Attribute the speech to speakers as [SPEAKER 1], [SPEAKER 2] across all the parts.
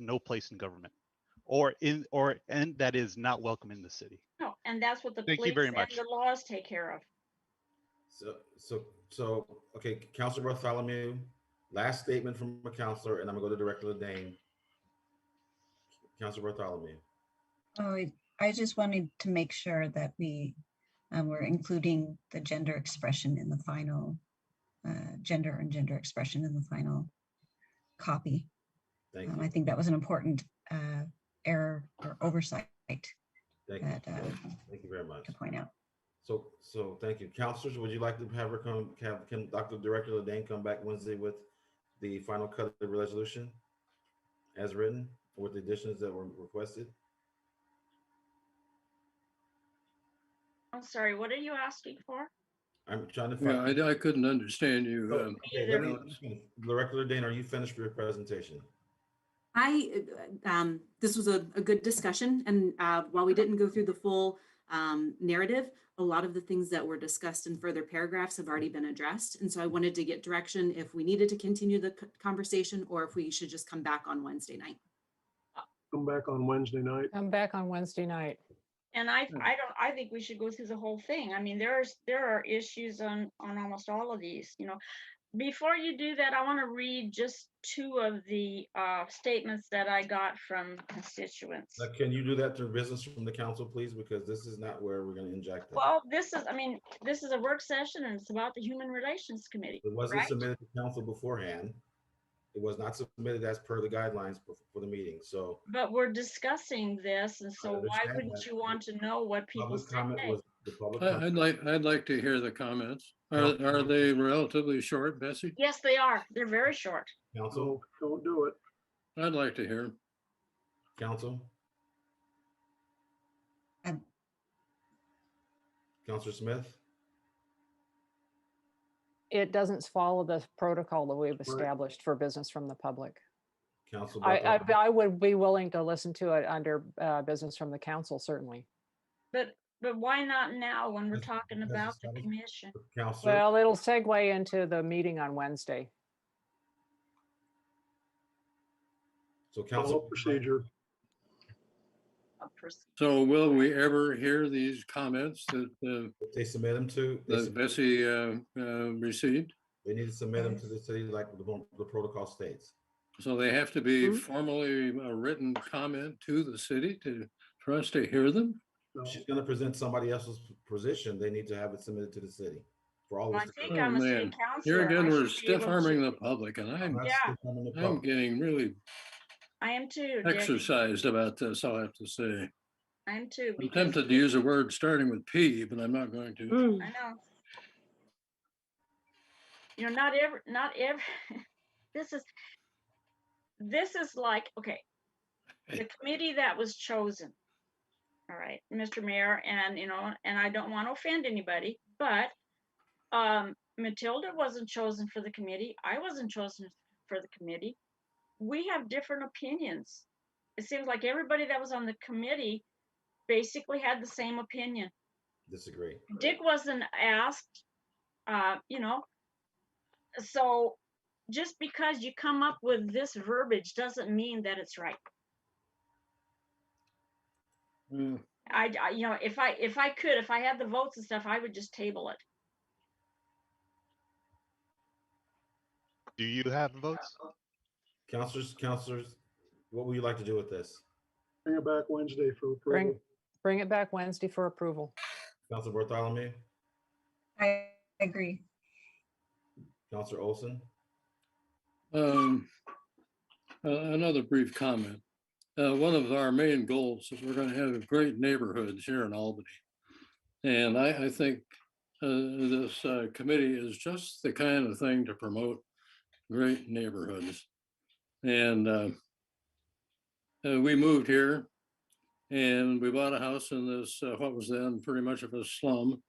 [SPEAKER 1] no place in government or in or and that is not welcome in the city.
[SPEAKER 2] No, Oh, and that's what the
[SPEAKER 1] Thank you
[SPEAKER 2] police
[SPEAKER 1] very
[SPEAKER 2] and
[SPEAKER 1] much.
[SPEAKER 2] the laws take care of.
[SPEAKER 3] So, so, so, okay, Counselor Bartholomew, last statement from a counselor, and I'm gonna go to Director Ladane. Counselor Bartholomew,
[SPEAKER 4] Oh, I- I just wanted to make sure that we uh, were including the gender expression in the final, uh, gender and gender expression in the final copy.
[SPEAKER 3] thank
[SPEAKER 4] Um, I
[SPEAKER 3] you,
[SPEAKER 4] think that was an important uh, error or oversight to
[SPEAKER 3] thank you,
[SPEAKER 4] that, uh,
[SPEAKER 3] thank you very much.
[SPEAKER 4] point out.
[SPEAKER 3] So, so, thank you. Counselors, would you like to have her come, have, can Dr. Director Ladane come back Wednesday with the final cut of the resolution? As written, with the additions that were requested?
[SPEAKER 2] I'm sorry, what are you asking for?
[SPEAKER 3] I'm trying to
[SPEAKER 5] Yeah,
[SPEAKER 3] find.
[SPEAKER 5] I, I couldn't understand you.
[SPEAKER 3] Oh,
[SPEAKER 5] um,
[SPEAKER 3] okay, let me- Director Ladane, are you finished with your presentation?
[SPEAKER 6] I, uh, um, this was a, a good discussion and, uh, while we didn't go through the full, um, narrative, a lot of the things that were discussed in further paragraphs have already been addressed. And so I wanted to get direction if we needed to continue the c- conversation or if we should just come back on Wednesday night.
[SPEAKER 5] Come back on Wednesday night.
[SPEAKER 7] I'm back on Wednesday night.
[SPEAKER 2] And I,
[SPEAKER 5] Hmm.
[SPEAKER 2] I don't, I think we should go through the whole thing. I mean, there's, there are issues on, on almost all of these, you know. Before you do that, I want to read just two of the uh, statements that I got from constituents.
[SPEAKER 3] Now, can you do that through business from the council, please? Because this is not where we're gonna inject it.
[SPEAKER 2] Well, this is, I mean, this is a work session and it's about the Human Relations Committee.
[SPEAKER 3] It wasn't
[SPEAKER 2] right.
[SPEAKER 3] submitted to council beforehand. It was not submitted as per the guidelines for, for the meeting, so
[SPEAKER 2] But we're discussing this and so why
[SPEAKER 3] understand
[SPEAKER 2] wouldn't
[SPEAKER 3] that.
[SPEAKER 2] you want to know what people
[SPEAKER 3] public
[SPEAKER 2] say?
[SPEAKER 3] comment was, the public.
[SPEAKER 5] I, I'd
[SPEAKER 3] comment-
[SPEAKER 5] Uh, like, I'd like to hear the comments. Are,
[SPEAKER 3] No.
[SPEAKER 5] are they relatively short, Bessie?
[SPEAKER 2] Yes, they are. They're very short.
[SPEAKER 3] Council,
[SPEAKER 8] Don't do it.
[SPEAKER 5] I'd like to hear. 'em.
[SPEAKER 3] council?
[SPEAKER 4] Um,
[SPEAKER 3] Counselor Smith?
[SPEAKER 7] It doesn't follow the protocol that we've established for business from the public.
[SPEAKER 3] Council?
[SPEAKER 7] I, I,
[SPEAKER 3] Bartholomew?
[SPEAKER 7] I would be willing to listen to it under uh, business from the council, certainly.
[SPEAKER 2] But, but why not now when we're
[SPEAKER 3] Because-
[SPEAKER 2] talking
[SPEAKER 3] because
[SPEAKER 2] about
[SPEAKER 3] it's
[SPEAKER 2] the
[SPEAKER 3] not a-
[SPEAKER 2] commission?
[SPEAKER 3] Counselor,
[SPEAKER 7] Well, it'll segue into the meeting on Wednesday.
[SPEAKER 3] so
[SPEAKER 8] Follow
[SPEAKER 3] council,
[SPEAKER 8] procedure.
[SPEAKER 3] Oh,
[SPEAKER 2] of pers-
[SPEAKER 5] So will we ever hear these comments that, uh,
[SPEAKER 3] they submit them to, they
[SPEAKER 5] that
[SPEAKER 3] sub-
[SPEAKER 5] Bessie, uh, uh, received?
[SPEAKER 3] they need to submit them to the city like the, one- the protocol states.
[SPEAKER 5] So they have to be
[SPEAKER 7] Mhm.
[SPEAKER 5] formally a written comment to the city to, for us to hear them?
[SPEAKER 8] No.
[SPEAKER 3] If She's gonna present somebody else's position, they need to have it submitted to the city for all
[SPEAKER 2] Well,
[SPEAKER 3] of
[SPEAKER 2] I
[SPEAKER 3] us. to-
[SPEAKER 2] think I'm a
[SPEAKER 5] Oh,
[SPEAKER 2] city
[SPEAKER 5] man.
[SPEAKER 2] councillor.
[SPEAKER 5] Here again,
[SPEAKER 2] I
[SPEAKER 5] we're
[SPEAKER 2] should be able
[SPEAKER 5] stiff
[SPEAKER 2] to-
[SPEAKER 5] arming the public and
[SPEAKER 3] I'm
[SPEAKER 5] I'm,
[SPEAKER 3] not
[SPEAKER 2] Yeah.
[SPEAKER 3] speaking on the
[SPEAKER 5] I'm
[SPEAKER 3] public.
[SPEAKER 5] getting really
[SPEAKER 2] I am too, Dick.
[SPEAKER 5] exercised about this, I'll have to say.
[SPEAKER 2] I am too.
[SPEAKER 5] I'm
[SPEAKER 2] because-
[SPEAKER 5] tempted to use a word starting with P, but I'm not going to.
[SPEAKER 2] I know. You know, not every, not every, this is, this is like, okay, the committee that was chosen. All right, Mr. Mayor, and you know, and I don't want to offend anybody, but um, Matilda wasn't chosen for the committee. I wasn't chosen for the committee. We have different opinions. It seems like everybody that was on the committee basically had the same opinion.
[SPEAKER 3] Disagree.
[SPEAKER 2] Dick wasn't asked, uh, you know. So just because you come up with this verbiage doesn't mean that it's right.
[SPEAKER 5] Mm,
[SPEAKER 2] I, I- you know, if I, if I could, if I had the votes and stuff, I would just table it.
[SPEAKER 1] Do you have votes?
[SPEAKER 3] Counselors, counselors, what would you like to do with this?
[SPEAKER 8] Bring it back Wednesday for
[SPEAKER 7] Bring,
[SPEAKER 8] approval.
[SPEAKER 7] bring it back Wednesday for approval.
[SPEAKER 3] Counselor Bartholomew,
[SPEAKER 4] I agree.
[SPEAKER 3] Counselor Olson,
[SPEAKER 5] um, uh, Another brief comment. Uh, One of our main goals is we're going to have great neighborhoods here in Albany. And I, I think uh, this uh, committee is just the kind of thing to promote great neighborhoods. And uh, uh, we moved here and we bought a house in this, uh, what was then pretty much of a slum.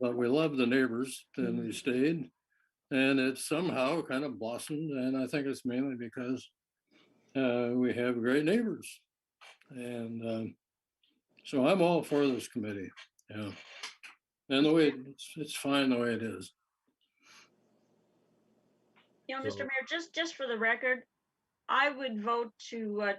[SPEAKER 5] but we loved the neighbors and we stayed. And it somehow kind of blossomed, and I think it's mainly because uh, we have great neighbors. And um, so I'm all for this committee, yeah. And the way, it's, it's fine the way it is.
[SPEAKER 2] You know, Mr.
[SPEAKER 3] So-
[SPEAKER 2] Mayor, just, just for the record, I would vote to uh,